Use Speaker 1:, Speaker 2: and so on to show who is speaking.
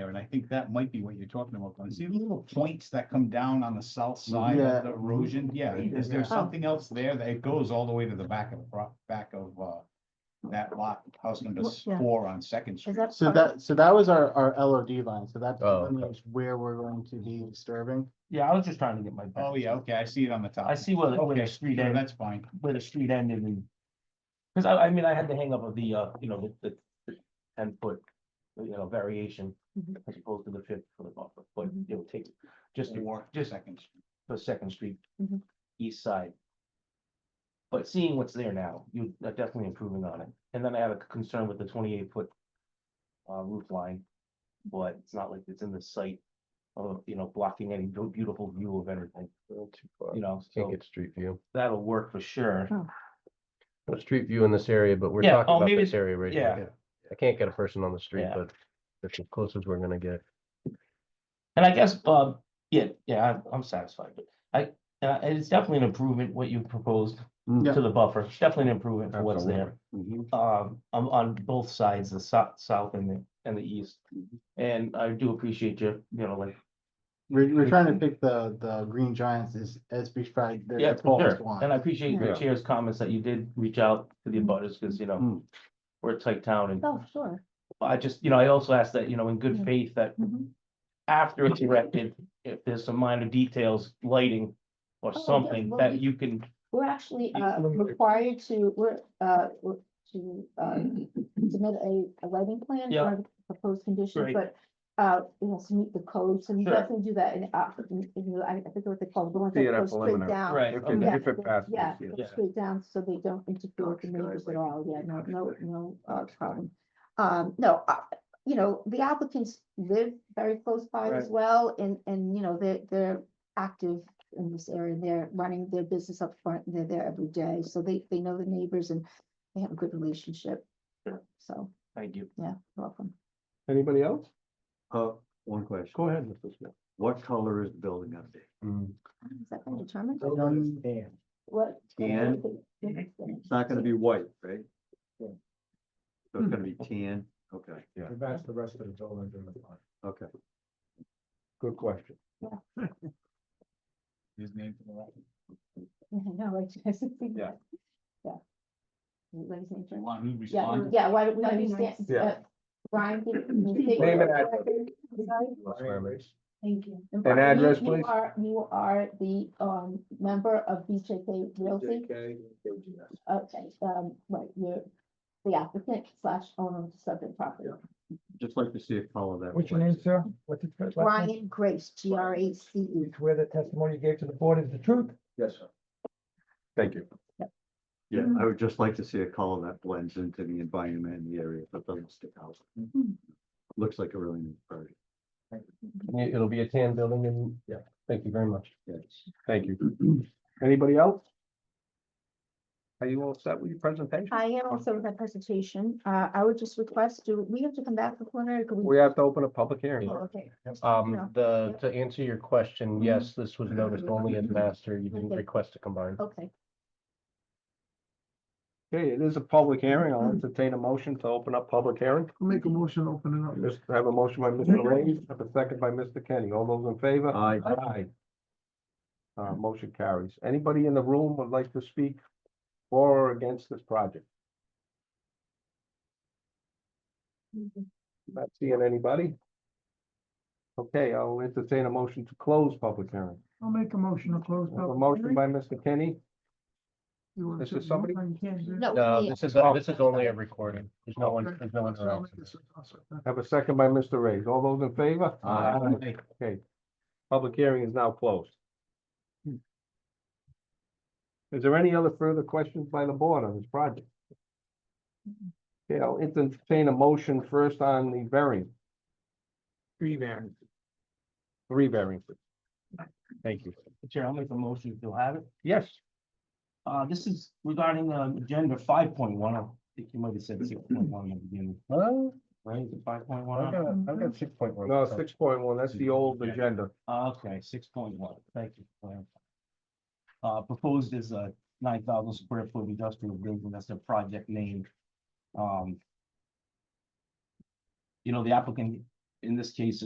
Speaker 1: and I think that might be what you're talking about. Glenn. See the little points that come down on the south side
Speaker 2: Yeah.
Speaker 1: of the erosion? Yeah, is there
Speaker 3: Oh.
Speaker 2: Yeah.
Speaker 1: something else there that it goes all the way to the back of the, pro- back of, uh, that lot, house number
Speaker 3: Well, yeah.
Speaker 1: four on Second
Speaker 3: Is
Speaker 1: Street?
Speaker 3: that?
Speaker 2: So
Speaker 3: part-
Speaker 2: that, so that was our, our LOD line, so that
Speaker 4: Oh, okay.
Speaker 2: delineates where we're going to be disturbing.
Speaker 5: Yeah, I was just trying to get my.
Speaker 1: Oh, yeah, okay, I see it on the top.
Speaker 5: I see where, the- where
Speaker 1: Okay,
Speaker 5: the street
Speaker 1: sure,
Speaker 5: ended,
Speaker 1: that's fine.
Speaker 5: where the street ended and. Cause I, I mean, I had the hang up of the, uh, you know, the, the, the ten foot, you know, variation.
Speaker 3: Mhm.
Speaker 5: As opposed to the fifth for the buffer, but
Speaker 3: Mhm.
Speaker 5: it would take, just to-
Speaker 1: Or
Speaker 5: just
Speaker 1: Second. Street.
Speaker 5: for Second Street,
Speaker 3: Mhm.
Speaker 5: east side. But seeing what's there now, you're definitely improving on it. And then I have a concern with the twenty-eight foot uh, roof line, but it's not like it's in the sight of, you know, blocking any beau- beautiful view of everything,
Speaker 4: Well, too far.
Speaker 5: you know,
Speaker 4: Can't
Speaker 5: so
Speaker 4: get street view.
Speaker 5: that'll work for sure.
Speaker 4: No street view in this area, but we're
Speaker 5: Yeah,
Speaker 4: talking
Speaker 5: oh,
Speaker 4: about
Speaker 5: maybe
Speaker 4: this
Speaker 5: it's-
Speaker 4: area right
Speaker 5: yeah.
Speaker 4: here. I can't get a person on the street,
Speaker 5: Yeah.
Speaker 4: but that's as close as we're gonna get.
Speaker 5: And I guess, um, yeah, yeah, I'm- I'm satisfied, but I, uh, and it's definitely an improvement what you proposed
Speaker 4: Mm.
Speaker 2: Yeah.
Speaker 5: to the buffer, It's definitely an improvement for what's there. um, on, on both sides, the south, south and the, and the east. And I do appreciate you, you know, like,
Speaker 2: We're, we're trying to pick the, the green giants as, as beside their
Speaker 5: yeah,
Speaker 2: their
Speaker 5: for
Speaker 2: tallest
Speaker 5: sure.
Speaker 2: one.
Speaker 5: And I appreciate
Speaker 4: Yeah.
Speaker 5: the chair's comments that you did reach out to the
Speaker 3: Mm.
Speaker 5: abutters because, you know,
Speaker 4: Mm.
Speaker 5: we're a tight town and
Speaker 3: Oh, sure.
Speaker 5: I just, you know, I also asked that, you know, in good
Speaker 3: Yeah.
Speaker 5: faith that
Speaker 3: Mhm.
Speaker 5: after it's erected, if there's some minor details, lighting or
Speaker 3: Oh, yeah,
Speaker 5: something
Speaker 3: well, we-
Speaker 5: that you can,
Speaker 3: We're actually
Speaker 5: Yeah.
Speaker 3: uh, required to, we're, uh, we're- to uh, submit a a lighting plan.
Speaker 5: Yeah.
Speaker 3: for the Proposed conditions,
Speaker 5: Great.
Speaker 3: but uh, it has to meet the code, so you
Speaker 5: Sure.
Speaker 3: definitely do that. And uh, in- in the- I I think what they call it, the ones that
Speaker 6: Theater
Speaker 3: go straight
Speaker 6: preliminary.
Speaker 3: down.
Speaker 5: right,
Speaker 6: If
Speaker 5: okay,
Speaker 3: Yeah,
Speaker 6: if it
Speaker 3: they-
Speaker 6: passes,
Speaker 3: Yeah,
Speaker 6: yeah.
Speaker 3: go
Speaker 5: Yeah.
Speaker 3: straight down, so they don't interfere with
Speaker 6: Dark
Speaker 3: the
Speaker 6: sky,
Speaker 3: neighbors at
Speaker 6: like,
Speaker 3: all, yeah, no,
Speaker 6: dark
Speaker 3: no,
Speaker 6: sky.
Speaker 3: no, uh,
Speaker 6: Dark sky.
Speaker 3: problem. Um, no, uh, you know, the applicants live very close by as well, and, and, you know, they're, they're active in this area, they're running their business up front, and they're there every day, so they, they know the neighbors and they have a good relationship.
Speaker 5: Sure.
Speaker 3: So,
Speaker 5: thank you.
Speaker 3: yeah, welcome.
Speaker 4: Anybody else?
Speaker 6: Uh, one question.
Speaker 4: Go ahead, Mr. Smith.
Speaker 6: What color is the building up there?
Speaker 4: Mm.
Speaker 3: Is that gonna determine
Speaker 2: I don't understand.
Speaker 3: what?
Speaker 6: And- It's not gonna be white, right?
Speaker 2: Yeah.
Speaker 6: So it's gonna be tan, okay, yeah,
Speaker 2: We've asked the rest of the buildings in the front.
Speaker 6: okay.
Speaker 2: Good question.
Speaker 1: His name for the record.
Speaker 3: No, I just.
Speaker 6: Yeah.
Speaker 3: Yeah. Ladies and
Speaker 1: Do you
Speaker 3: gentlemen.
Speaker 1: want me to
Speaker 3: Yeah,
Speaker 1: respond?
Speaker 3: yeah, why don't we
Speaker 7: That'd be
Speaker 3: understand?
Speaker 7: nice.
Speaker 6: Yeah.
Speaker 3: uh, Brian. give- state
Speaker 6: Name
Speaker 3: your
Speaker 6: and address.
Speaker 3: record. I'm sorry.
Speaker 7: Thank you.
Speaker 3: And Brian,
Speaker 6: address,
Speaker 3: you- you
Speaker 6: please.
Speaker 3: are- You are the um member of BJK Realty, okay, um, right, you're the applicant slash owner of the subject property.
Speaker 6: Just like to see a color that.
Speaker 8: What's your
Speaker 6: way.
Speaker 8: name, sir? What's your first last name?
Speaker 3: Brian Grace, G R A C E.
Speaker 8: Swear the testimony you gave to the board is the truth?
Speaker 6: Yes, sir. Thank you. Yeah, I would just like to see a color that blends into the environment in the area, but doesn't stick out.
Speaker 3: Mhm.
Speaker 6: Looks like a really neat party.
Speaker 4: It'll be a tan building and, yeah, thank you very much.
Speaker 6: Yes.
Speaker 4: Thank you.
Speaker 2: Anybody else?
Speaker 6: Are you all set with your presentation?
Speaker 3: I am also with my presentation, uh, I would just request, do we have to come back for preliminary? Could we-
Speaker 6: have to open a public hearing.
Speaker 3: Oh, Okay. Yeah.
Speaker 4: Um, the,
Speaker 3: Yep.
Speaker 4: to answer your question,
Speaker 3: Mhm.
Speaker 4: yes, this was noticed only as master. You didn't
Speaker 3: Okay.
Speaker 4: request to combine.
Speaker 3: Okay,
Speaker 2: Okay, it is a public hearing. I'll
Speaker 8: Mm-hmm.
Speaker 2: entertain a motion to open up public hearing.
Speaker 6: Make a motion, open
Speaker 8: Mm-hmm.
Speaker 6: it
Speaker 2: Just have a motion by Mr. Ray, have a second by Mr. Kenny. All those in favor?
Speaker 6: Aye.
Speaker 2: Aye. Uh, motion carries. Anybody in the room would like to speak for or against this project? Not seeing anybody? Okay, I'll entertain a motion to close public hearing.
Speaker 8: I'll make a motion to close.
Speaker 2: I have A motion by Mr. Kenny.
Speaker 8: You want
Speaker 2: This
Speaker 8: to-
Speaker 2: is somebody-
Speaker 8: you can't do it.
Speaker 3: no.
Speaker 4: No,
Speaker 1: Uh,
Speaker 3: yeah.
Speaker 4: this is, this is only a recording. There's no one,
Speaker 8: Okay.
Speaker 4: there's no one
Speaker 8: I'll
Speaker 4: else.
Speaker 8: make this a toss up.
Speaker 2: Have a second by Mr. Ray. All those in favor?
Speaker 6: Aye.
Speaker 1: Like,
Speaker 2: Okay, public hearing is now closed. Is there any other further questions by the board on this project? Okay, I'll entertain a motion first on the variance,
Speaker 8: Three variants.
Speaker 2: three variances. Thank you.
Speaker 5: Chair, I'll make a motion if you'll have it.
Speaker 2: Yes,
Speaker 5: Uh, this is regarding, um, agenda five point one, I think you might have said six point one in the beginning,
Speaker 4: Well,
Speaker 5: right, is it five point
Speaker 4: I've
Speaker 5: one?
Speaker 4: got, I've got six point one.
Speaker 2: no, six point one, that's the old agenda.
Speaker 5: Okay, six point one, thank you. for clarifying. Uh, proposed is a nine thousand square foot industrial building, that's the project name. Um. You know, the applicant in this case